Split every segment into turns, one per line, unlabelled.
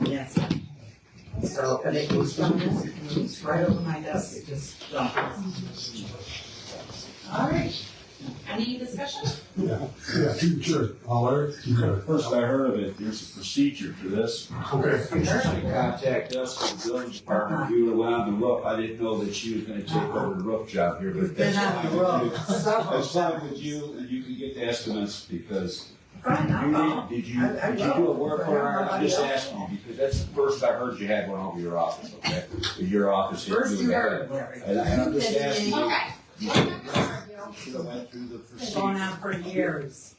Yes. So, but it was from this, it moves right over my desk, it just dumped.
All right. Any discussion?
Yeah, two, sure. Holler.
The First I heard of it, there's a procedure for this.
Okay.
Contact us from the building
Uh-huh.
department, we were allowed to look, I didn't know that she was gonna take over the roof job here, but that's
Been on
fine
the
with you.
road.
That's fine with you, and you can get the estimates, because
Fine,
you
I'll call.
need, did you,
Uh-huh. I- I
did you do
will.
a work
But I don't
order? I'm just
know about
asking you, because that's the first I heard you had one over your office, okay? Your office. didn't
First
do
you
that.
heard, Larry.
And and I'm just asking you,
Okay.
you should have went through the
It's
procedure.
going on for years.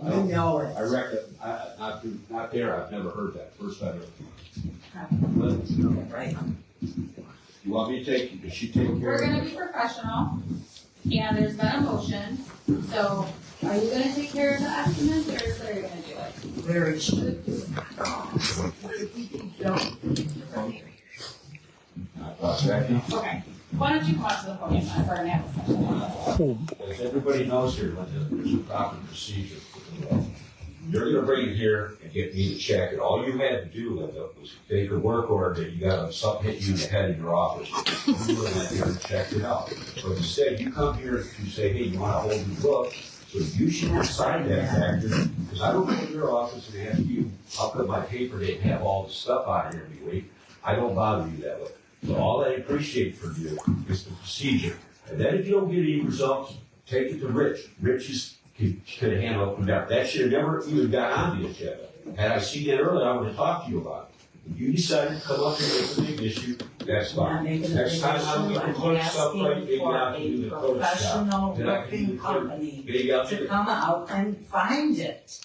and You know it.
I reckon, I, not, not there, I've never heard that, first I heard.
Okay.
But
Right.
You want me to take, does she take care
We're
of
gonna
it?
be professional, and there's been a motion, so are you gonna take care of the estimates, or is Larry gonna do it?
Larry should. Don't.
I thought that-
Okay, why don't you come up to the podium uh, for an application?
As everybody knows here, Linda, there's a proper procedure. You're gonna bring it here and get me to check it. All you had to do, Linda, was take your work order that you got on something hit you in the head in your office. You went in there and checked it out. But instead, you come here and you say, hey, you wanna hold your book? So you should sign that factor, because I don't go to your office and ask you, I'll put my paper, they have all the stuff out here every week. I don't bother you that way. So all I appreciate from you is the procedure. And then if you don't get any results, take it to Rich. Rich is, could, could handle it from there. That should have never even got on the agenda. Had I seen it earlier, I would have talked to you about it. If You decided to come up here with a big issue, that's
Not
fine.
making a big
Next
issue.
time I'm gonna
I'm
put stuff right,
asking
maybe
for
I'll do
a
the Photoshop.
professional
Then I can do
roofing
the-
company
Maybe I'll do
to
it.
come out and find it.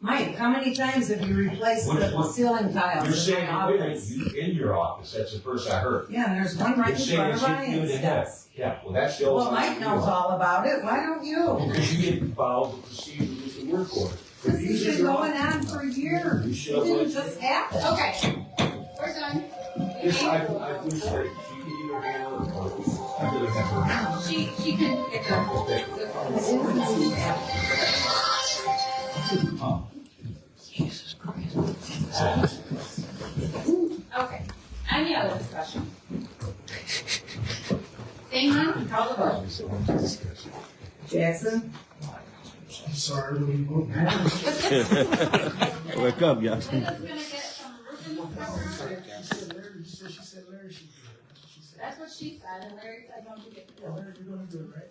Mike, how many times have you replaced
What-
the
what-
ceiling
You're
tiles in
saying,
my
wait, a minute,
office?
you, in your office, that's the first I heard.
Yeah, and there's one right in
You're saying
front
it's
of
hitting you in
Ryan's
the head.
desk.
Yeah, well, that's the only.
Well, Mike knows all about it, why don't you?
Because you didn't follow the procedure with the work order.
This has been going on for years,
You
it
should have
didn't
went.
just happen.
Okay, we're done.
Yes, I, I wish that you could either handle it or, I really have her.
She, she can get her.
Okay.
Okay, any other discussion? Seeing none, call the vote.
Jackson?
Sorry, we moved.
Wake up, y'all.
Linda's gonna get some roofing inspector.
Larry, so she said Larry should do it. That's what she said.
That's what she said, and Larry said, don't do it.
Yeah, Larry, you're gonna do it, right?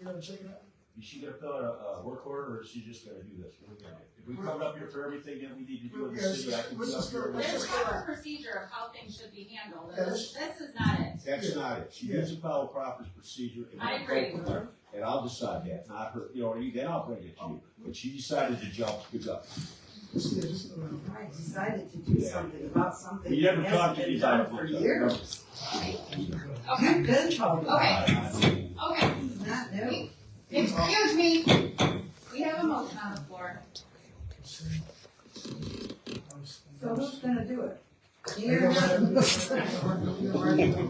You're gonna check it out?
Is she gonna fill out a, a work order or is she just gonna do this? What do we gotta do? If we come up here for everything that we need to do in the city, I can come up here.
There's
with it.
a procedure of how things should be handled, and this, this is not it.
That's not it. She needs to follow proper procedure. and
I
I'll
agree.
go from there. And I'll decide that, not her, you know, then I'll bring it to you. But she decided to jump, good luck.
Just, yeah, just go around.
I decided to do
Yeah.
something about something
You
that
never talked
hasn't
to
been
these
done for
items.
years.
Okay,
You've been told about
Okay.
Okay.
it,
okay,
it's not new.
excuse me, we have a motion on the floor.
So who's gonna do it?
I
You're
don't
not.
You're gonna write the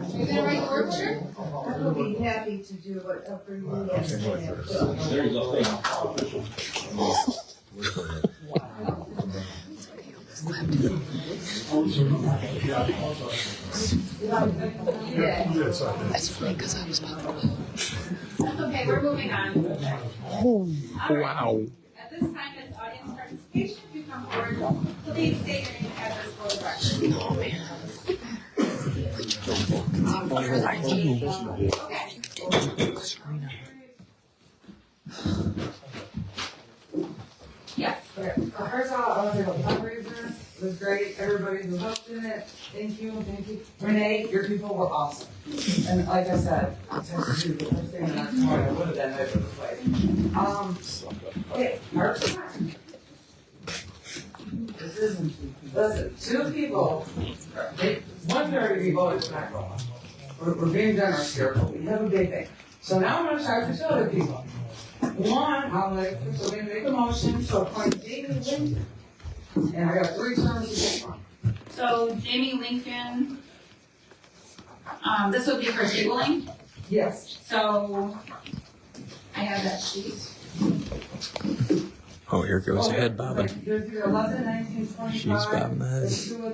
work order?
I will be happy to do whatever you guys have done.
There you go, thank you.
Yeah.
Yeah, it's all right.
That's okay, we're moving on. Wow. At this time, it's audience participation, if you come forward, please state your name and address for the record. Okay. Yes,
Uh, First of all, I want to thank the fundraiser. It was great. Everybody who helped in it. Thank you, thank you. Renee, your people were awesome. And like I said, I texted you the first thing and I thought I would have been there for the fight. Um, okay, Parks and Rec. This isn't, listen, two people, they, one very voted for that role. We're, we're being generous here, but we have a big thing. So now I'm gonna try to two other people. One, I'm like, so we make a motion to appoint David Lincoln. And I got three terms to go on.
so Jamie Lincoln, um, this would be for tabling.
Yes,
So, I have that sheet.
Oh, here goes head bobbing.
There's your eleven, nineteen, twenty-five.
She's bobbing the head.
There's two of